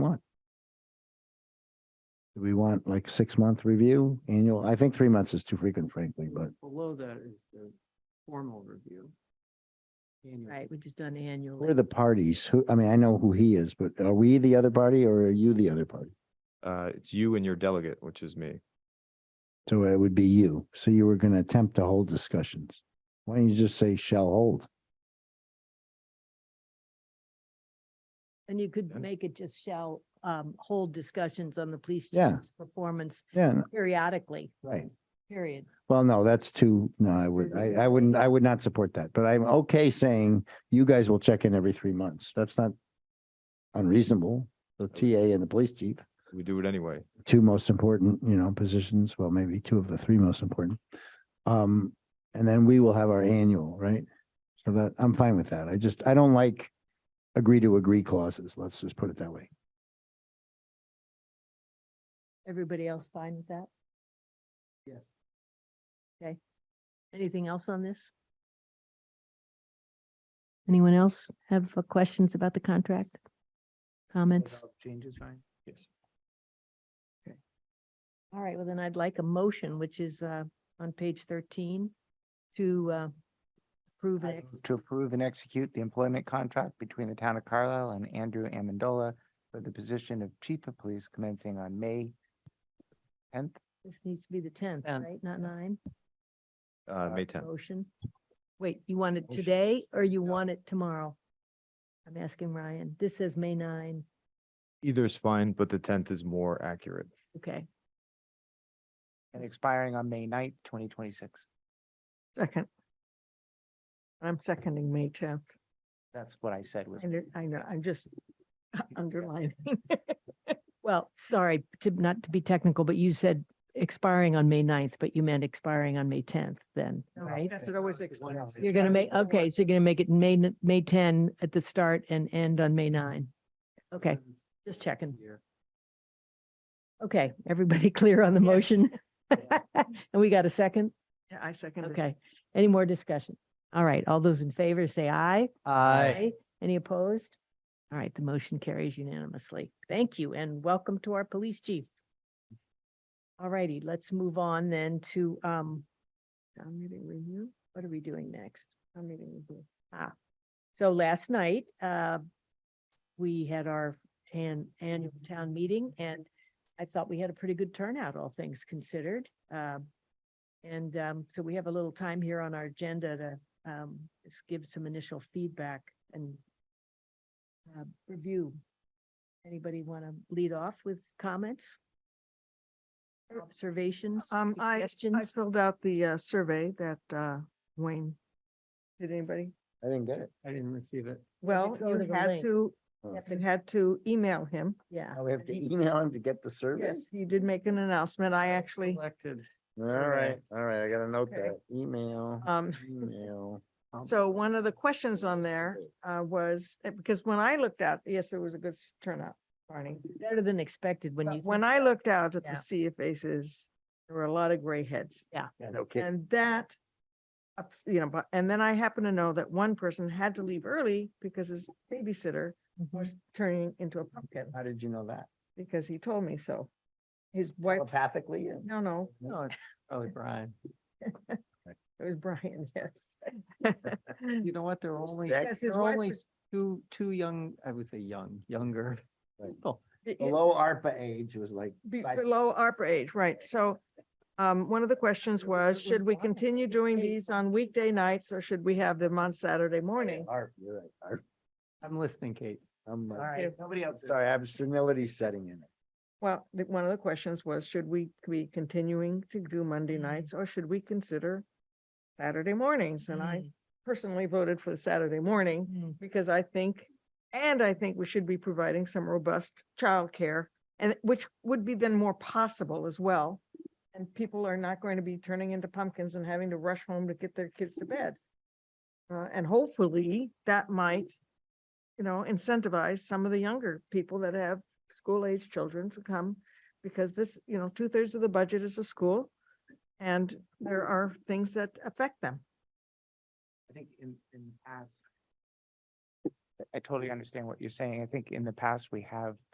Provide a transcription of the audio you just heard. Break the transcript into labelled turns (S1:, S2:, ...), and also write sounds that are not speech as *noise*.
S1: Do we want like six month review, annual? I think three months is too frequent frankly, but
S2: Below that is the formal review. Annual.
S3: Right, which is done
S1: who are
S3: annually.
S1: the parties? Who, I mean, I know who he is, but are we the other party or are you the other party?
S4: Uh, it's you and your delegate, which is me.
S1: So it would be you. So you were going to attempt to hold discussions. Why don't you just say shall hold?
S3: And you could
S4: Yeah.
S3: make it just shall um hold discussions on the police
S1: Yeah.
S3: chief's performance
S1: Yeah, no,
S3: periodically,
S1: right.
S3: period.
S1: Well, no, that's too, no, I
S2: That's
S1: would,
S2: too
S1: I,
S2: big.
S1: I wouldn't, I would not support that, but I'm okay saying you guys will check in every three months. That's not unreasonable. The TA and the police chief.
S4: We do it anyway.
S1: two most important, you know, positions, well, maybe two of the three most important. Um, and then we will have our annual, right? So that, I'm fine with that. I just, I don't like agree to agree clauses. Let's just put it that way.
S3: Everybody else fine with that?
S2: Yes.
S3: Anything else on this? Anyone else have uh, questions about the contract? Comments?
S2: Without Changes, fine.
S4: Yes.
S3: All right, well then I'd like a motion, which is uh on page thirteen to uh approve an
S5: I
S3: ex-
S5: move To approve and execute the employment contract between the town of Carlisle and Andrew Amendola for the position of chief of police commencing on May tenth.
S3: this needs to be the tenth,
S2: Tenth,
S3: right? Not nine?
S4: Uh, May tenth.
S3: Motion. Wait, you want it
S1: Motion.
S3: today or you want it tomorrow? I'm asking Ryan. This says May nine.
S4: Either is fine, but the tenth is more accurate.
S3: Okay.
S5: and expiring on May 9th, twenty twenty-six.
S6: Second. I'm seconding May tenth.
S5: That's what I said was.
S6: I know, I know,
S3: *laughs*
S6: I'm just underlining.
S3: Well, sorry to not to be technical, but you said expiring on May 9th, but you meant expiring on May tenth then, right?
S6: That's what I was explaining.
S3: You're gonna make, okay, so you're gonna make it May, n- May ten at the start and end on May nine. Okay, just checking. *laughs*
S2: Year.
S3: Okay, everybody *laughs* clear on the
S6: Yes.
S3: motion? *laughs* And we got a second?
S6: Yeah, I seconded.
S3: Okay, any more discussion? All right, all those in favor say aye. Any opposed? All right, the motion carries unanimously. Thank you and welcome to our police chief. All righty, let's move on then to um town meeting review. What are we doing next? Town meeting review. Ah, so last night, uh, we had our tan annual town meeting and I thought we had a pretty good turnout, all things considered. Um, and um, so we have a little time here on our agenda to um, just give some initial feedback and uh, review. Anybody want to lead off with comments? Observations,
S6: Um, I- I I
S3: suggestions?
S6: filled out the uh, survey that uh, Wayne, did anybody?
S1: I didn't get it.
S2: I didn't receive it.
S6: Well,
S3: go to
S6: you
S3: the
S6: had
S3: link?
S6: to,
S1: Oh.
S6: you had to email him.
S3: Yeah.
S1: Now we
S6: *laughs*
S1: have to email him to get the
S6: Yes,
S1: service.
S6: he did make an announcement. I actually,
S2: Selected.
S1: All right, all right, I gotta note
S6: Okay.
S1: that. Email,
S6: um,
S1: email.
S6: so one of the questions on there uh, was, uh, because when I looked out, yes, there was a good s- turnout, Barney.
S3: Better than expected when
S6: But
S3: you.
S6: When
S3: think
S6: I looked out at
S3: Yeah.
S6: the sea of faces, there were a lot of gray heads.
S1: Yeah, no kidding.
S6: And that, ups- you know, but, and then I happen to know that one person had to leave early because his babysitter
S1: Mm-hmm.
S3: Mhm.
S6: was turning into a pumpkin
S1: How did you know that?
S6: because he told me so. His wife,
S1: Telepathically?
S6: no, no,
S2: No, it's probably Brian.
S6: it was Brian, *laughs* yes.
S2: You know what? There are only,
S1: Jack-
S2: there
S6: Yes, his
S2: are
S6: wife
S2: only
S6: was-
S2: two, two young, I would say young, younger
S1: Right.
S2: people.
S6: It- it-
S1: Below ARPA age was like
S6: be-
S1: five-
S6: Below ARPA age, right. So um, one of the questions was, should we continue doing these on weekday nights or should we have them on Saturday morning?
S1: ARP, you're right, ARP.
S2: I'm listening, Kate.
S1: I'm like-
S2: Sorry, nobody else.
S1: Sorry, I have senility setting in.
S6: Well, the- one of the questions was, should we be continuing to do Monday nights or should we consider Saturday mornings? And I personally voted for the Saturday morning
S3: Mm.
S6: um, because I think, and I think we should be providing some robust childcare and which would be then more possible as well. And people are not going to be turning into pumpkins and having to rush home to get their kids to bed. Uh, and hopefully that might, you know, incentivize some of the younger people that have school age children to come. Because this, you know, two thirds of the budget is the school and there are things that affect them.
S2: I think in, in the past,
S5: I totally understand what you're saying. I think in the past, we have